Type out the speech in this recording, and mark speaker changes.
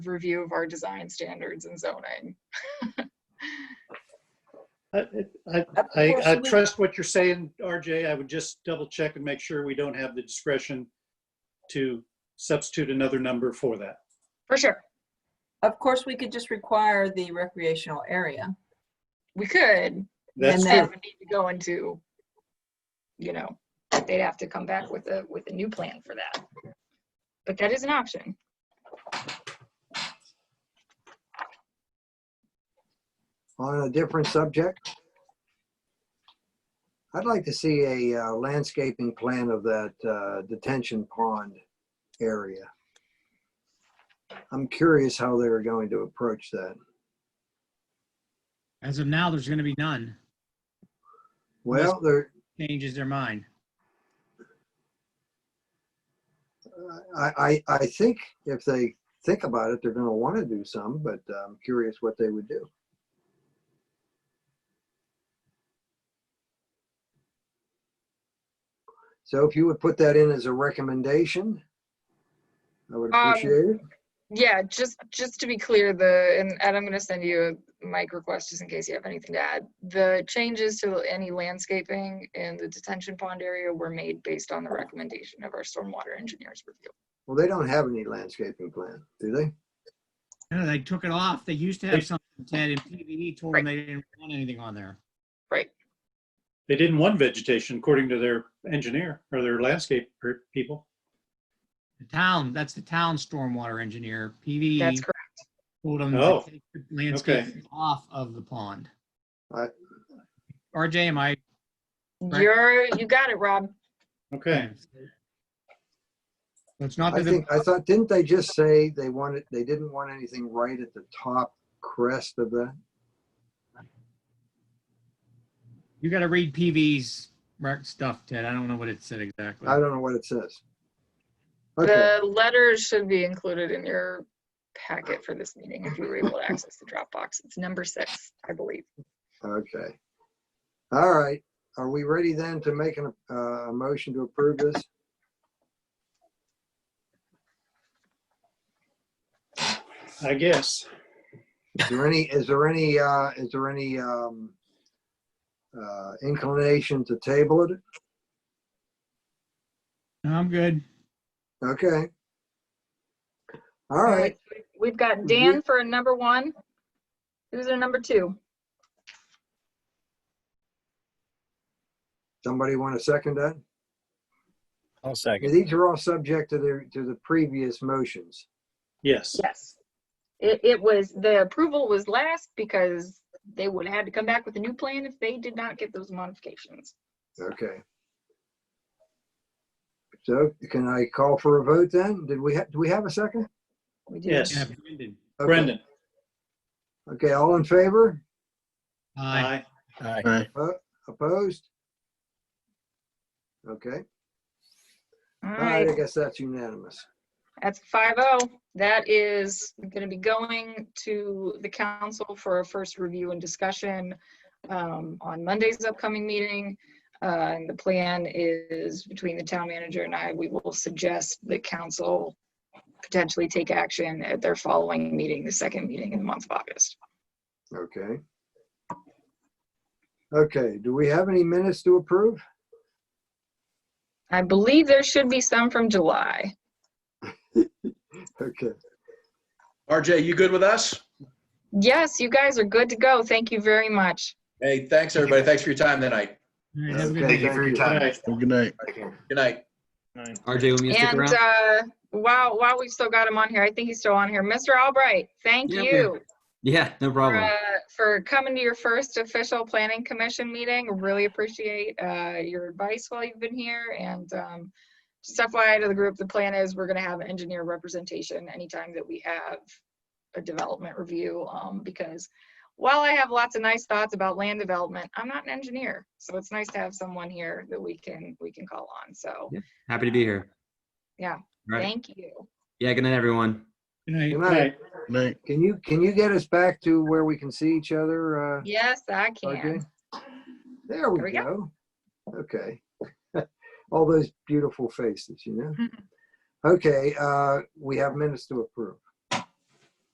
Speaker 1: review of our design standards and zoning.
Speaker 2: I, I, I I trust what you're saying, RJ. I would just double check and make sure we don't have the discretion to substitute another number for that.
Speaker 1: For sure,
Speaker 3: Of course, we could just require the recreational area.
Speaker 1: we could.
Speaker 2: That's
Speaker 3: And
Speaker 1: They
Speaker 3: then-
Speaker 2: true.
Speaker 1: would need to go into, you know, they'd have to come back with a, with a new plan for that. But that is an option.
Speaker 4: on a different subject. I'd like to see a uh, landscaping plan of that uh, detention pond area. I'm curious how they were going to approach that.
Speaker 5: As of now, there's going to be none.
Speaker 4: Well, there,
Speaker 5: Changes their mind.
Speaker 4: I, I, I think if they think about it, they're gonna want to do some, but I'm curious what they would do. So if you would put that in as a recommendation, I would
Speaker 1: Um,
Speaker 4: appreciate it.
Speaker 1: Yeah, just, just to be clear, the, and and I'm gonna send you a mic request just in case you have anything to add. The changes to any landscaping in the detention pond area were made based on the recommendation of our stormwater engineers review.
Speaker 4: Well, they don't have any landscaping plan, do they?
Speaker 5: You know, they took it off. They used to have something, Ted, and PVE told them they didn't want anything on there.
Speaker 2: They didn't want vegetation according to their engineer or their landscape per- people.
Speaker 5: The town, that's the town stormwater engineer, PVE,
Speaker 1: That's correct.
Speaker 5: told them
Speaker 2: Oh,
Speaker 5: to take the landscape off of the pond.
Speaker 4: I-
Speaker 5: RJ, am I? Right.
Speaker 1: You're, you got it, Rob.
Speaker 2: Okay.
Speaker 5: So It's not
Speaker 4: I
Speaker 5: that, the-
Speaker 4: think, I thought, didn't they just say they wanted, they didn't want anything right at the top crest of the,
Speaker 5: you got to read PV's rec stuff, Ted. I don't know what it said exactly.
Speaker 4: I don't know what it says. Okay,
Speaker 1: The letters should be included in your packet for this meeting if you were able to access the Dropbox. It's number six, I believe.
Speaker 4: okay. All right, are we ready then to make an, uh, a motion to approve this?
Speaker 2: I guess.
Speaker 4: Is there any, is there any, uh, is there any, um, uh, inclination to table it?
Speaker 5: I'm good.
Speaker 4: Okay. All right, Mm-hmm.
Speaker 1: We've got Dan for a number one. Who's our number two?
Speaker 4: somebody want to second that?
Speaker 6: I'll
Speaker 4: Yeah,
Speaker 6: second.
Speaker 4: These are all subject to the, to the previous motions.
Speaker 2: Yes.
Speaker 1: Yes. It, it was, the approval was last because they would have had to come back with a new plan if they did not get those modifications.
Speaker 4: Okay. So can I call for a vote then? Did we, ha- do we have a second?
Speaker 3: We do.
Speaker 2: Yes.
Speaker 5: Yeah, Brendan.
Speaker 4: Okay.
Speaker 2: Brendan.
Speaker 4: Okay, all in favor?
Speaker 5: Aye.
Speaker 6: Aye.
Speaker 4: Opposed? Okay,
Speaker 1: All
Speaker 4: all right, I
Speaker 1: right,
Speaker 4: guess that's unanimous.
Speaker 1: that's five oh. That is gonna be going to the council for a first review and discussion um, on Monday's upcoming meeting. Uh, and the plan is between the town manager and I, we will suggest the council potentially take action at their following meeting, the second meeting in the month of August.
Speaker 4: Okay. Okay, do we have any minutes to approve?
Speaker 1: I believe there should be some from July.
Speaker 4: Okay,
Speaker 7: RJ, you good with us?
Speaker 1: Yes, you guys are good to go. Thank you very much.
Speaker 7: Hey, thanks, everybody. Thanks for your time tonight.
Speaker 5: All right, have a
Speaker 4: Okay.
Speaker 5: good day.
Speaker 8: Thank you for your
Speaker 2: All
Speaker 8: time.
Speaker 2: right.
Speaker 6: Well, Good night.
Speaker 7: Good night.
Speaker 9: RJ, want me to stick
Speaker 1: And
Speaker 9: around?
Speaker 1: uh, while, while we've still got him on here, I think he's still on here. Mr. Albright, thank
Speaker 9: Yeah,
Speaker 1: you
Speaker 9: Yeah, no
Speaker 1: for,
Speaker 9: problem.
Speaker 1: uh, for coming to your first official planning commission meeting. Really appreciate uh, your advice while you've been here. And um, just FYI to the group, the plan is we're going to have engineer representation anytime that we have a development review. um, Because while I have lots of nice thoughts about land development, I'm not an engineer. So it's nice to have someone here that we can, we can call on. So
Speaker 9: Happy to be here.
Speaker 1: Yeah.
Speaker 9: Right.
Speaker 1: thank you.
Speaker 9: Yeah, good night, everyone.
Speaker 5: Good night.
Speaker 4: good
Speaker 2: All
Speaker 4: night.
Speaker 2: right.
Speaker 6: Good night.
Speaker 4: Can you, can you get us back to where we can see each other? uh,
Speaker 1: Yes, I
Speaker 4: Okay.
Speaker 1: can.
Speaker 4: There
Speaker 1: There
Speaker 4: we
Speaker 1: we go.
Speaker 4: go. Okay. Mm-hmm. All those beautiful faces, you know? Okay, uh, we have minutes to approve.